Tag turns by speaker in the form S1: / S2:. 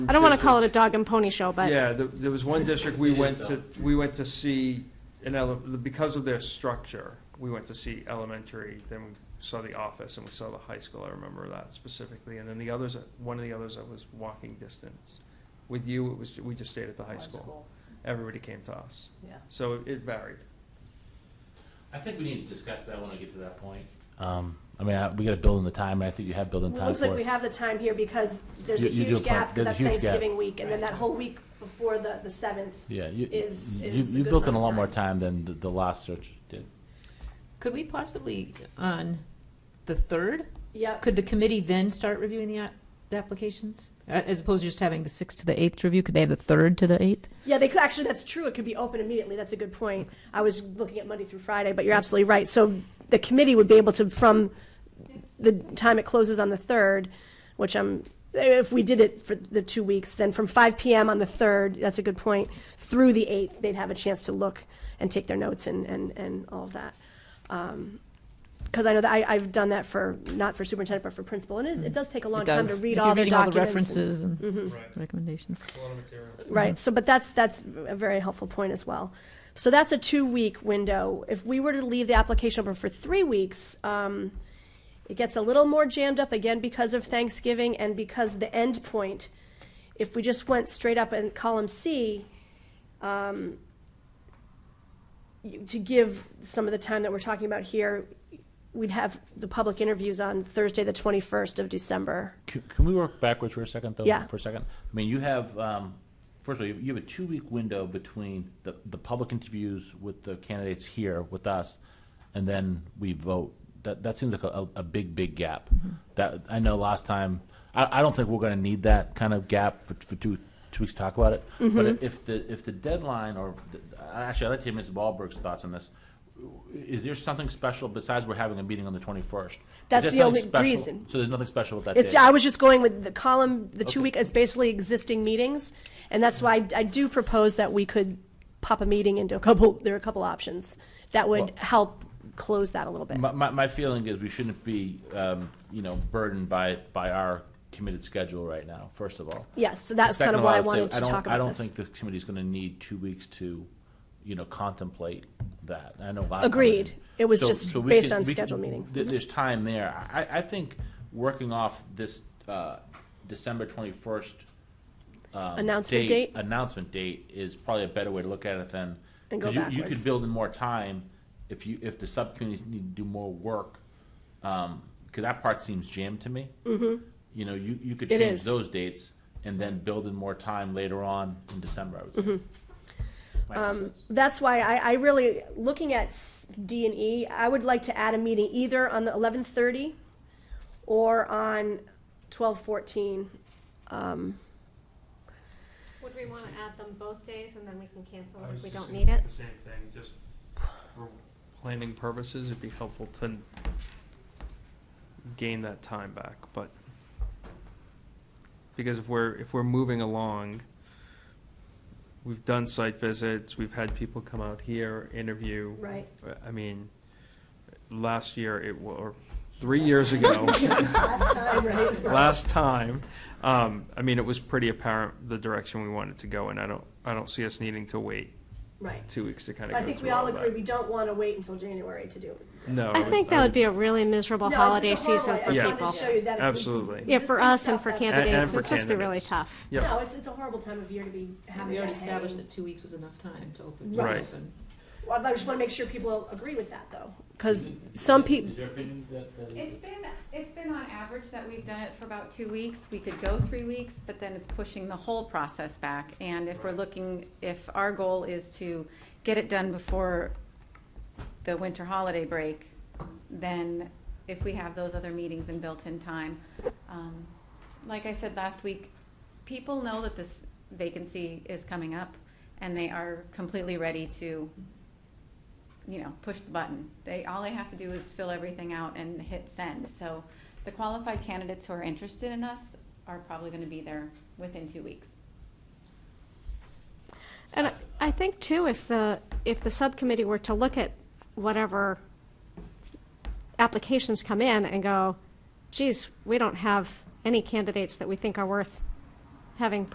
S1: I don't want to call it a dog and pony show, but
S2: Yeah, the- there was one district we went to, we went to see, an ele- because of their structure, we went to see elementary, then we saw the office and we saw the high school, I remember that specifically. And then the others, one of the others I was walking distance. With you, it was, we just stayed at the high school. Everybody came to us.
S3: Yeah.
S2: So it- it varied.
S4: I think we need to discuss that when I get to that point. Um, I mean, I, we gotta build in the time, and I think you have built in
S3: Well, it
S4: time
S3: looks like
S4: for
S3: we
S4: it.
S3: have the time here because there's a
S4: You- you do
S3: huge
S4: a plan.
S3: gap, because
S4: There's a
S3: that's
S4: huge gap.
S3: Thanksgiving week, and then that whole week before the, the seventh.
S4: Yeah, you,
S3: is-
S4: you,
S3: is a
S4: you
S3: good
S4: built in a
S3: amount
S4: lot
S3: of
S4: more time than the, the last search did.
S5: Could we possibly, on the third,
S3: Yep,
S5: could the committee then start reviewing the, a- the applications? Uh, As opposed to just having the sixth to the eighth to review, could they have the third to the eighth?
S3: yeah, they could, actually, that's true, it could be open immediately, that's a good point. I was looking at Monday through Friday, but you're absolutely right, so the committee would be able to, from the time it closes on the third, which I'm, if we did it for the two weeks, then from five PM on the third, that's a good point, through the eighth, they'd have a chance to look and take their notes and, and, and all of that. Because I know that I, I've done that for, not for superintendent, but for principal, and it is, it does take a long
S5: It
S3: time to
S5: does.
S3: read
S5: If
S3: all
S5: you're
S3: the
S5: reading all
S3: documents.
S5: References and
S1: Mm-hmm.
S2: Right,
S5: recommendations.
S2: a lot of material.
S3: Right, so, but that's, that's a very helpful point as well. So that's a two-week window. If we were to leave the application open for three weeks, um, it gets a little more jammed up again because of Thanksgiving and because the end point. If we just went straight up in column C, um, you- to give some of the time that we're talking about here, we'd have the public interviews on Thursday, the twenty-first of December.
S4: Can, can we work backwards for a second, though?
S3: Yeah.
S4: For a second? I mean, you have, um, first of all, you- you have a two-week window between the, the public interviews with the candidates here with us, and then we vote. That, that seems like a, a big, big gap.
S3: Mm-hmm.
S4: That, I know last time, I, I don't think we're gonna need that kind of gap for, for two, two weeks to talk about it.
S3: Mm-hmm.
S4: But if the, if the deadline, or, the- actually, I'd like to hear Ms. Wahlberg's thoughts on this. Is there something special besides we're having a meeting on the twenty-first?
S3: That's the only reason.
S4: So there's nothing special with that
S3: It's,
S4: date?
S3: I was just going with the column, the two
S4: Okay.
S3: week, it's basically existing meetings, and that's why I, I do propose that we could pop a meeting into a couple, there are a couple options that would
S4: Well-
S3: help close that a little bit.
S4: My, my, my feeling is we shouldn't be, um, you know, burdened by, by our committed schedule right now, first of all.
S3: Yes, so that's kind
S4: Second
S3: of
S4: of
S3: why
S4: all,
S3: I
S4: I'd say
S3: wanted to
S4: don't-
S3: talk
S4: I
S3: about
S4: don't
S3: this.
S4: think the committee's gonna need two weeks to, you know, contemplate that. I know last. time we
S3: Agreed.
S4: didn't.
S3: It was
S4: So-
S3: just
S4: so we
S3: based
S4: could-
S3: on
S4: we could-
S3: scheduled meetings. Mm-hmm.
S4: there- There's time there. I, I think working off this, uh, December twenty-first
S3: Announcement date,
S4: announcement date is probably a better way to look at it than
S3: And go
S4: 'cause you, you
S3: backwards.
S4: could build in more time if you if the subcommittees need to do more work because that part seems jammed to me. Mm-hmm. You know, you, you could
S3: It
S4: change
S3: is.
S4: those dates and then build in more time later on in December. I would say.
S3: Mm-hmm.
S4: My
S3: Um,
S4: two cents.
S3: that's why I, I really, looking at s- D and E, I would like to add a meeting either on the eleven thirty or on twelve fourteen. um,
S1: Would we want to add them both days and then we can cancel it if we don't need it?
S2: The same thing, just for planning purposes, it'd be helpful to gain that time back, but because if we're, if we're moving along, we've done site visits, we've had people come out here, interview.
S3: Right.
S2: I mean, last year, it, wa- or three years ago,
S3: Last time, right?
S2: last time, um, I mean, it was pretty apparent the direction we wanted to go, and I don't, I don't see us needing to wait
S3: Right.
S2: two weeks to kind of
S3: I think we all agree, we don't want to wait until January to do it.
S2: No.
S1: I think that would be a really miserable
S3: No, it's-
S1: holiday
S3: it's a horrible-
S1: season
S3: I
S1: for
S3: just
S2: Yeah.
S3: wanted to
S1: people.
S3: show you that if we-
S2: Absolutely.
S1: Yeah, for
S3: existing
S1: us and
S3: stuff,
S1: for
S2: And-
S3: that's-
S2: and
S1: candidates,
S2: for
S1: it's just be really
S2: candidates.
S1: tough.
S3: No,
S2: Yeah,
S3: it's, it's a horrible time of year to be having.
S5: We already
S3: that
S5: established
S3: hanging.
S5: that two weeks was enough time to open.
S3: Right.
S2: Right.
S3: Well, I just want to make sure people agree with that, though, because some people,
S4: Is your opinion that- that-
S6: It's been, it's been on average that we've done it for about two weeks. We could go three weeks, but then it's pushing the whole process back. And if we're looking, if our goal is to get it done before the winter holiday break, then if we have those other meetings in built-in time, um, like I said last week, people know that this vacancy is coming up, and they are completely ready to you know, push the button. They, all they have to do is fill everything out and hit send. So the qualified candidates who are interested in us are probably gonna be there within two weeks.
S1: And I- I think too, if the, if the subcommittee were to look at whatever applications come in and go, geez, we don't have any candidates that we think are worth having